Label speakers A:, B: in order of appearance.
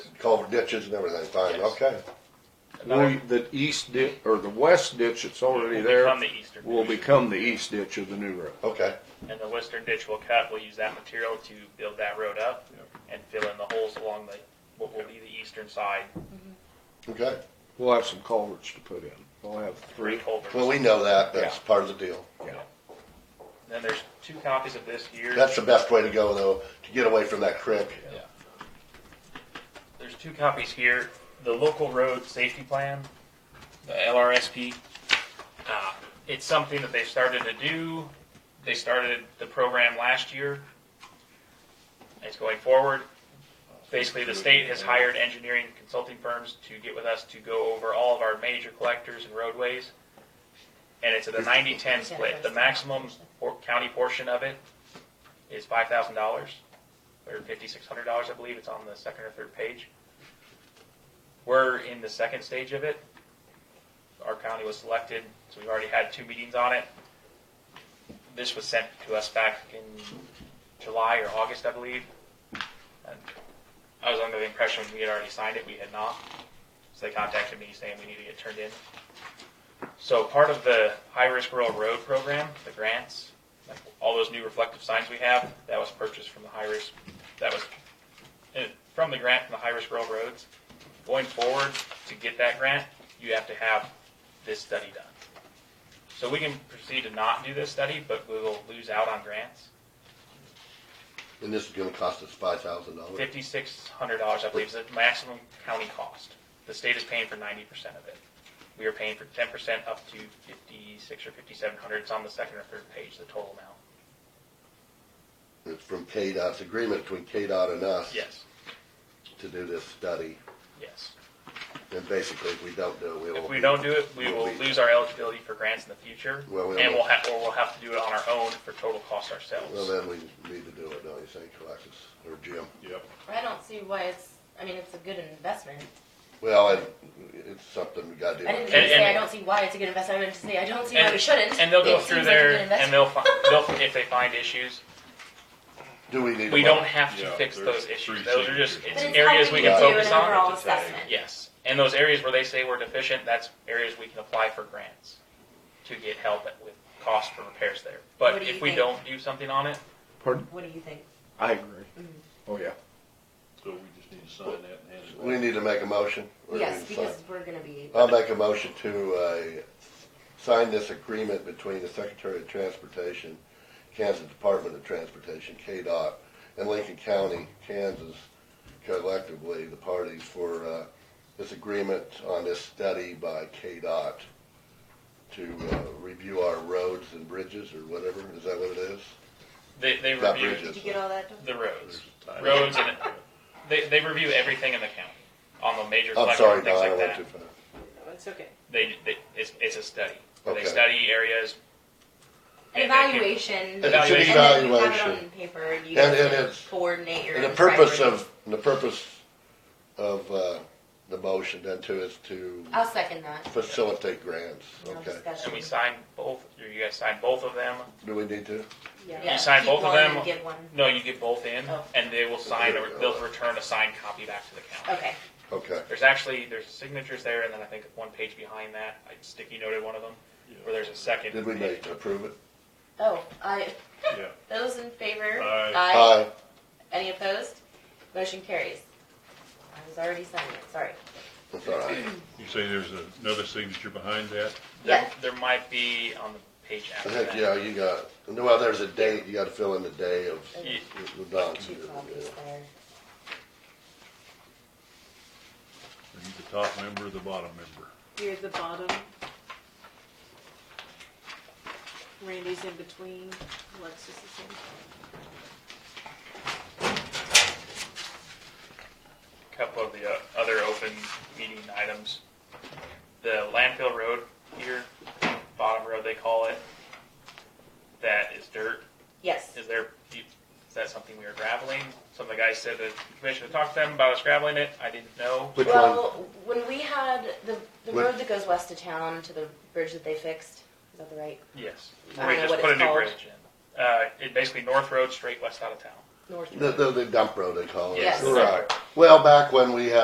A: culvert ditches and everything, fine,
B: Yes.
A: okay.
C: We, the east di, or the west ditch that's
B: Will
C: already there
B: become the eastern
C: will
B: ditch.
C: become the east ditch of the new road.
A: Okay,
B: And the western ditch will cut, we'll use that material to build that road up and fill in the holes along the, what will be the eastern side,
A: okay.
C: We'll have some culverts to put in. We'll have
B: three
C: three.
B: culverts.
A: Well, we know that, that's
C: Yeah.
A: part of the deal.
C: Yeah.
B: Then there's two copies of this here.
A: That's the best way to go though, to get away from that creek.
B: There's two copies here. The local road safety plan, the LRSP. Uh, it's something that they started to do. They started the program last year. It's going forward. Basically, the state has hired engineering consulting firms to get with us to go over all of our major collectors and roadways. And it's at a 90-10 split. The maximum por- county portion of it is five thousand dollars or fifty-six hundred dollars, I believe. It's on the second or third page. We're in the second stage of it. Our county was selected, so we've already had two meetings on it. This was sent to us back in July or August, I believe. And I was under the impression we had already signed it. We had not. So they contacted me saying we need to get turned in. So part of the high-risk rural road program, the grants, like all those new reflective signs we have, that was purchased from the high risk, that was eh, from the grant from the high risk rural roads. Going forward, to get that grant, you have to have this study done. So we can proceed to not do this study, but we will lose out on grants.
A: And this is gonna cost us five thousand dollars.
B: Fifty-six hundred dollars, I believe, is the maximum county cost. The state is paying for ninety percent of it. We are paying for ten percent up to fifty-six or fifty-seven hundred. It's on the second or third page, the total amount.
A: It's from KDOT, it's agreement between KDOT and us.
B: Yes,
A: To do this study.
B: yes.
A: And basically, if we don't do it, we will.
B: If
A: be-
B: we don't do it, we
A: we'll
B: will
A: be-
B: lose our eligibility for grants in the future,
A: Well, we
B: and
A: will.
B: we'll have, or we'll have to do it on our own for total cost
A: Well,
B: ourselves.
A: then we need to do it, don't you think, Alexis, or Jim?
C: Yep.
D: I don't see why it's, I mean, it's a good investment.
A: Well, it- it's something we gotta do.
D: I didn't mean
B: And-
D: to say I
B: and-
D: don't see why it's a good investment, I meant to say I don't see why
B: And-
D: we shouldn't.
B: And they'll go
D: It
B: through
D: seems like a
B: there,
D: good
B: and they'll find, they'll, if they find issues,
A: Do we need?
B: we
A: a
B: don't
A: vote?
B: have to
E: Yeah,
B: fix
E: there's
B: those
E: three
B: issues. Those are just,
E: signatures.
B: it's
D: But it's
B: areas we
D: helping
B: can
D: you do
B: focus
D: an
B: on.
D: overall
E: It's a tag.
D: assessment.
B: Yes, and those areas where they say we're deficient, that's areas we can apply for grants to get help with cost for repairs there.
D: What
B: But
D: do
B: if
D: you
B: we
D: think?
B: don't do something on it,
C: Pardon?
D: What do you think?
C: I agree. Oh, yeah.
E: So we just need to sign that and hand it back.
A: We need to make a motion. Or we
D: Yes,
A: need to
D: because
A: sign?
D: we're gonna be,
A: I'll make a motion to, uh, sign this agreement between the Secretary of Transportation, Kansas Department of Transportation, KDOT, and Lincoln County, Kansas, collectively, the parties for, uh, this agreement on this study by KDOT to, uh, review our roads and bridges or whatever, is that what it is?
B: they, they
A: Not
B: review
A: bridges.
D: did you get all that done?
B: the roads.
E: Tied
B: roads
E: up.
B: and they, they review everything in the county on the major
A: I'm
B: collector
A: sorry,
B: and things
A: Don, I
B: like
A: went too
B: that.
A: far.
D: No, it's okay.
B: They, they it's, it's a study.
A: Okay.
B: They study areas.
D: An
B: and they can-
D: evaluation.
A: It's an
D: and then you have it
A: evaluation.
D: on paper, and you
A: And-
D: guys
A: and
D: can
A: it's-
D: coordinate your.
A: And the
D: own
A: purpose
D: priorities.
A: of, and the purpose of, uh, the motion then too is to
D: I'll second that.
A: facilitate grants,
D: No
A: okay?
D: discussion.
B: And we sign both, or you guys sign both of them.
A: Do we need to?
D: Yeah,
B: You sign
D: keep
B: both of
D: one and
B: them.
D: Get one.
B: No, you get both in,
D: Oh.
B: and they will sign, or
A: There we go.
B: they'll return a signed copy back to the county.
D: Okay,
A: Okay,
B: There's actually, there's signatures there, and then I think one page behind that, I sticky noted one of them, where there's a second.
A: did we
B: page.
A: make, approve it?
D: oh, I,
E: Yeah,
D: those in favor?
E: Aye.
A: Aye.
D: Any opposed? Motion carries. I was already signing it, sorry.
A: That's all right.
E: you say there's another signature behind that?
B: There,
D: Yes.
B: there might be on the page
A: I
B: after
A: think,
B: that.
A: yeah, you got, well, there's a date, you gotta fill in the day of
B: Ye-
A: the Don's
D: Two
A: here.
D: copies there.
E: Are you the top member or the bottom member?
F: You're the bottom. Randy's in between, Alexis is in.
B: couple of the uh, other open meeting items. The landfill road here, bottom road they call it, that is dirt.
D: Yes,
B: Is there, is that something we are graveling? Some of the guys said that the commission talked to them about us graveling it. I didn't know.
A: Which one?
D: well, when we had the, the
A: What-
D: road that goes west of town to the bridge that they fixed, is that the right?
B: Yes.
D: I don't
B: We
D: know
B: just
D: what
B: put a
D: it's
B: new
D: called.
B: bridge in. Uh, it basically North Road, straight west out of town.
D: North.
A: The, the, the dump road they call it.
B: Yes.
A: Right. Well, back when we had